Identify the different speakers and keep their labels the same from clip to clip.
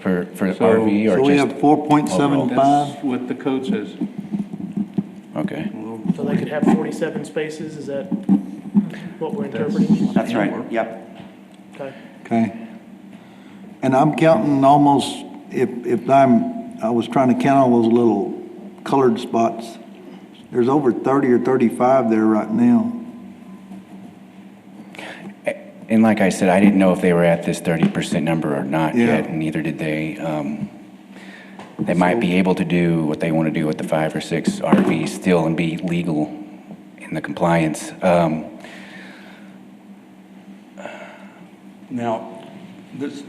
Speaker 1: for, for
Speaker 2: So-
Speaker 1: RV
Speaker 3: So
Speaker 1: or
Speaker 3: we
Speaker 1: just?
Speaker 3: have four point seven five,
Speaker 2: That's what the code says.
Speaker 1: Okay,
Speaker 4: So they could have 47 spaces, is that what we're interpreting?
Speaker 5: That's right, yep.
Speaker 4: Okay.
Speaker 3: okay? And I'm counting almost, if, if I'm, I was trying to count all those little colored spots. There's over thirty or thirty-five there right now.
Speaker 1: and like I said, I didn't know if they were at this thirty percent number or not
Speaker 3: Yeah.
Speaker 1: yet, and neither did they. Um, They might be able to do what they want to do with the five or six RVs still and be legal in the compliance. Um,
Speaker 5: Now, this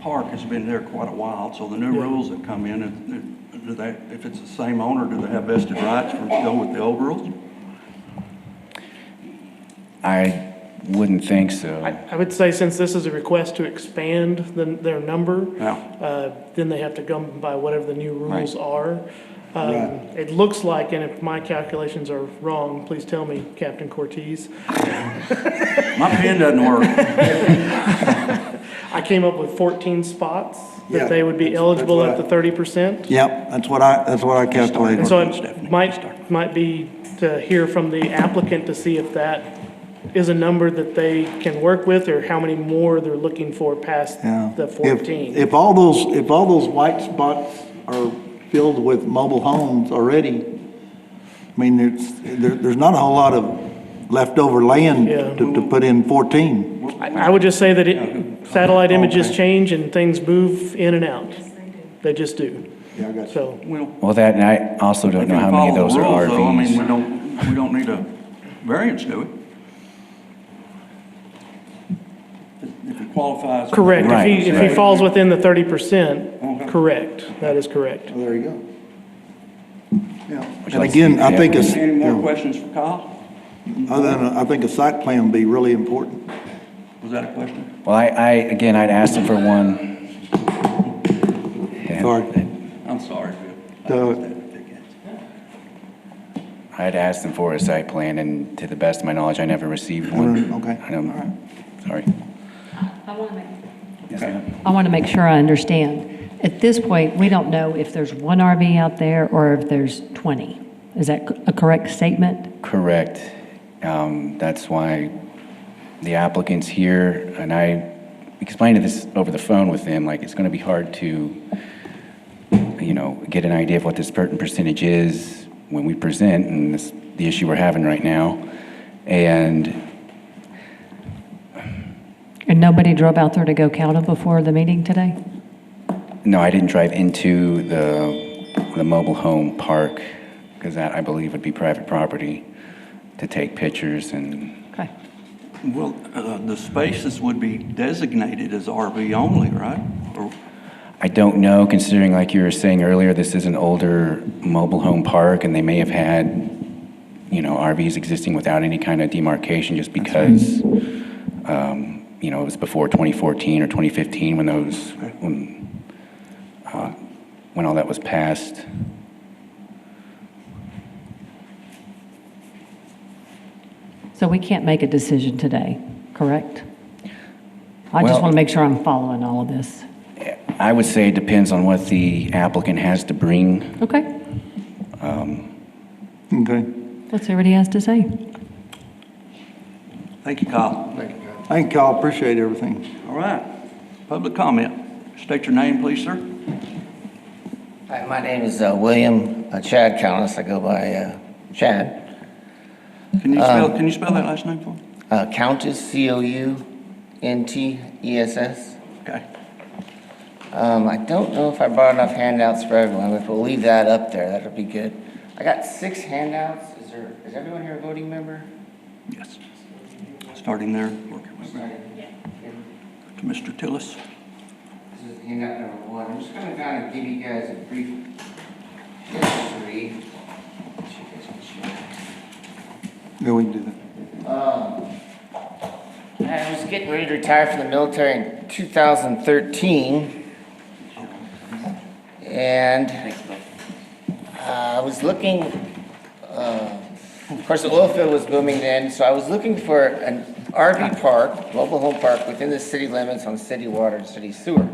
Speaker 5: park has been there quite a while, so the new rules that come in, if- if- do they, if it's the same owner, do they have vested rights for go with the old rules?
Speaker 1: I wouldn't think so.
Speaker 4: I I would say since this is a request to expand the- their number,
Speaker 5: Yeah.
Speaker 4: uh, then they have to come by whatever the new rules are. Um,
Speaker 3: Right.
Speaker 4: It looks like, and if my calculations are wrong, please tell me, Captain Cortez,
Speaker 5: My pen doesn't work.
Speaker 4: I came up with 14 spots
Speaker 3: Yeah,
Speaker 4: that they would be
Speaker 3: that's- that's
Speaker 4: eligible
Speaker 3: what I-
Speaker 4: at the 30%.
Speaker 3: Yep, that's what I, that's what I calculated.
Speaker 4: And so
Speaker 5: Stephanie,
Speaker 4: it might, might be to hear from the applicant to see if that is a number that they can work with, or how many more they're looking for past
Speaker 3: Yeah.
Speaker 4: the
Speaker 3: If-
Speaker 4: 14.
Speaker 3: If all those, if all those white spots are filled with mobile homes already, I mean, there's, there, there's not a whole lot of leftover land
Speaker 4: Yeah.
Speaker 3: to, to put in fourteen.
Speaker 4: I I would just say that it- satellite images change and things move in and out. They just do.
Speaker 3: Yeah, I got
Speaker 4: So,
Speaker 5: Well,
Speaker 1: Well, that, and I also don't
Speaker 5: if
Speaker 1: know
Speaker 5: you
Speaker 1: how many of
Speaker 5: follow
Speaker 1: those
Speaker 5: the
Speaker 1: are
Speaker 5: rules, though, I mean, we
Speaker 1: RVs.
Speaker 5: don't, we don't need a variance, do we? If it qualifies.
Speaker 4: correct. If he, if he
Speaker 1: Right.
Speaker 4: falls within the 30%, correct. That is correct.
Speaker 3: There you go. Yeah,
Speaker 1: Would you
Speaker 3: and
Speaker 1: like to see
Speaker 3: again, I
Speaker 1: the
Speaker 3: think it's,
Speaker 5: Any more
Speaker 3: other
Speaker 5: questions for Kyle?
Speaker 3: than, I think a site plan would be really important.
Speaker 5: Was that a question?
Speaker 1: Well, I, I, again, I'd asked them for one. and
Speaker 3: Sorry.
Speaker 5: I'm sorry, Bill.
Speaker 3: The-
Speaker 5: I just had to pick it.
Speaker 1: I'd asked them for a site plan, and to the best of my knowledge, I never received one.
Speaker 3: okay.
Speaker 1: I don't, sorry.
Speaker 6: I want to make.
Speaker 1: Yes, ma'am.
Speaker 6: I want to make sure I understand. At this point, we don't know if there's one RV out there or if there's 20. Is that a correct statement?
Speaker 1: Correct. Um, That's why the applicant's here, and I explained this over the phone with them, like, it's going to be hard to, you know, get an idea of what this certain percentage is when we present, and this, the issue we're having right now. And
Speaker 6: And nobody drove out there to go count them before the meeting today?
Speaker 1: No, I didn't drive into the, the mobile home park, because that, I believe, would be private property, to take pictures and,
Speaker 6: Okay.
Speaker 5: Well, uh, the spaces would be designated as RV only, right? Or
Speaker 1: I don't know, considering, like you were saying earlier, this is an older mobile home park, and they may have had, you know, RVs existing without any kind of demarcation, just because, um, you know, it was before 2014 or 2015 when those, when, uh, when all that was passed.
Speaker 6: So we can't make a decision today, correct? I just
Speaker 1: Well-
Speaker 6: want to make sure I'm following all of this.
Speaker 1: I would say it depends on what the applicant has to bring
Speaker 6: Okay,
Speaker 3: Okay.
Speaker 6: let's hear what he has to say.
Speaker 5: Thank you, Kyle.
Speaker 3: Thank y'all, appreciate everything.
Speaker 5: All right. Public comment. State your name, please, sir.
Speaker 7: Hi, my name is uh, William uh, Chad Callis. I go by uh, Chad.
Speaker 5: Can you spell, can you spell that last name for me?
Speaker 7: Uh, Countess, C O U N T E S S.
Speaker 5: Okay.
Speaker 7: Um, I don't know if I brought enough handouts for everyone, but we'll leave that up there. That'll be good. I got six handouts. Is there? Is everyone here a voting member?
Speaker 5: Yes. Starting there, working my way back to Mr. Tillis.
Speaker 7: This is handout number one. I'm just gonna kind of give you guys a brief history.
Speaker 3: Yeah, we can do that.
Speaker 7: Um, I was getting ready to retire from the military in 2013. And uh, I was looking, uh, of course, the oil field was booming then, so I was looking for an RV park, mobile home park, within the city limits on city water and city sewer.